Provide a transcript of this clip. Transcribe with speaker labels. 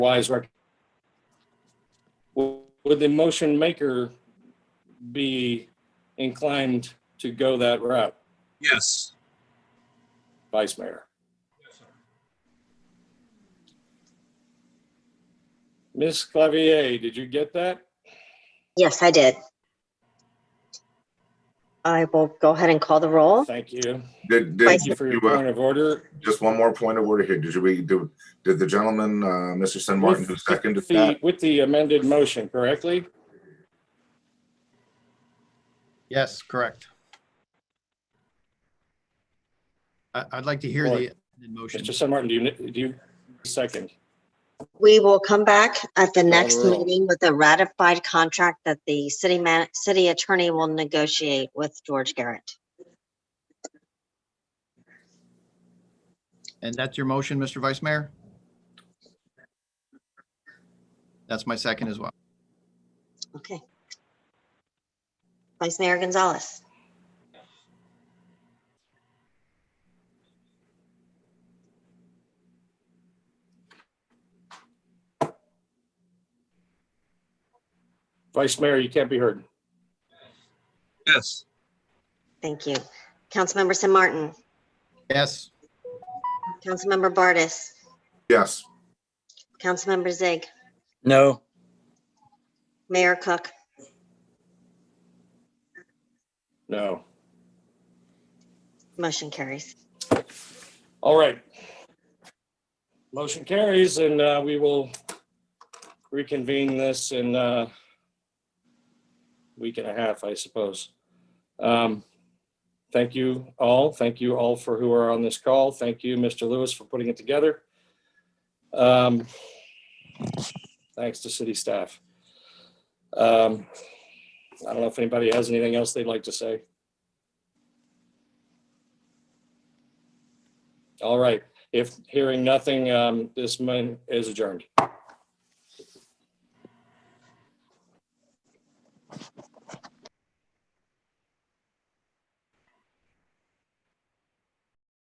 Speaker 1: wise rec. Would the motion maker be inclined to go that route,
Speaker 2: Yes.
Speaker 1: Vice Mayor? Ms. Clavier, did you get that?
Speaker 3: Yes, I did. I will go ahead and call the roll.
Speaker 1: Thank you.
Speaker 4: Did, did
Speaker 1: Thank you
Speaker 4: you,
Speaker 1: for your
Speaker 4: uh,
Speaker 1: point of order.
Speaker 4: just one more point of order here. Did you read, did, did the gentleman, uh, Mr. Sin Martin, who seconded
Speaker 1: With the-
Speaker 4: that?
Speaker 1: With the amended motion, correctly?
Speaker 5: Yes, correct. I, I'd like to hear
Speaker 1: Or-
Speaker 5: the amended motion.
Speaker 1: Mr. San Martin, do you, do you second?
Speaker 3: We will come back at the next
Speaker 1: roll.
Speaker 3: meeting with a ratified contract that the city man, city attorney will negotiate with George Garrett.
Speaker 5: And that's your motion, Mr. Vice Mayor? That's my second as well.
Speaker 3: Okay. Vice Mayor Gonzalez,
Speaker 1: Vice Mayor, you can't be heard.
Speaker 2: Yes.
Speaker 3: thank you. Councilmember Sim Martin,
Speaker 5: Yes,
Speaker 3: Councilmember Bartis,
Speaker 4: Yes,
Speaker 3: Councilmember Zig,
Speaker 6: No,
Speaker 3: Mayor Cook,
Speaker 1: No.
Speaker 3: motion carries.
Speaker 1: All right. Motion carries and uh, we will reconvene this in a week and a half, I suppose. Um, Thank you all. Thank you all for who are on this call. Thank you, Mr. Lewis, for putting it together. Um, Thanks to city staff. Um, I don't know if anybody has anything else they'd like to say. All right. If hearing nothing, um, this man is adjourned.